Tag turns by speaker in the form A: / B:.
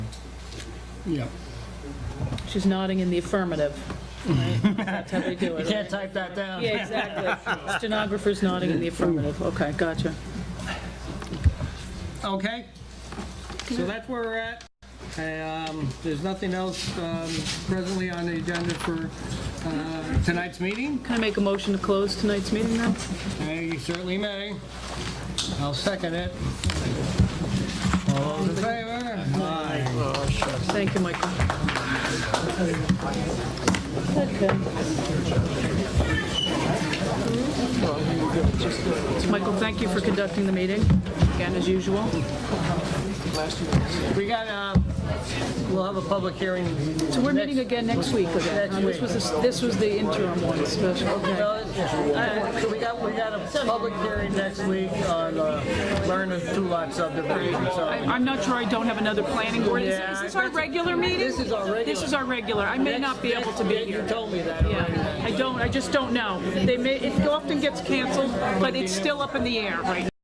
A: Yeah.
B: She's nodding in the affirmative, right? That's how they do it.
C: You can't type that down.
B: Yeah, exactly. Stenographer's nodding in the affirmative. Okay, gotcha.
C: Okay, so that's where we're at. Um, There's nothing else um, presently on the agenda for uh, tonight's meeting.
B: Can I make a motion to close tonight's meeting now?
C: Uh, You certainly may. I'll second it. All those in favor? Aye.
B: Thank you, Michael. Okay. Michael, thank you for conducting the meeting, again, as usual.
C: We got, uh, we'll have a public hearing.
B: So we're meeting again next week, okay?
C: Next
B: Uh, This
C: week.
B: was, the- this was the interim one, special, okay.
C: Uh, So we got, we got a public hearing next week on uh, Lerner two-lot subdivision,
D: I-
C: so.
D: I'm not sure I don't have another planning board. Is is this our regular meeting?
C: This is our regular.
D: This is our regular. I may not be able to be
C: You
D: here.
C: told me that already.
D: Yeah, I don't, I just don't know. They may, it often gets canceled, but it's still up in the air right now.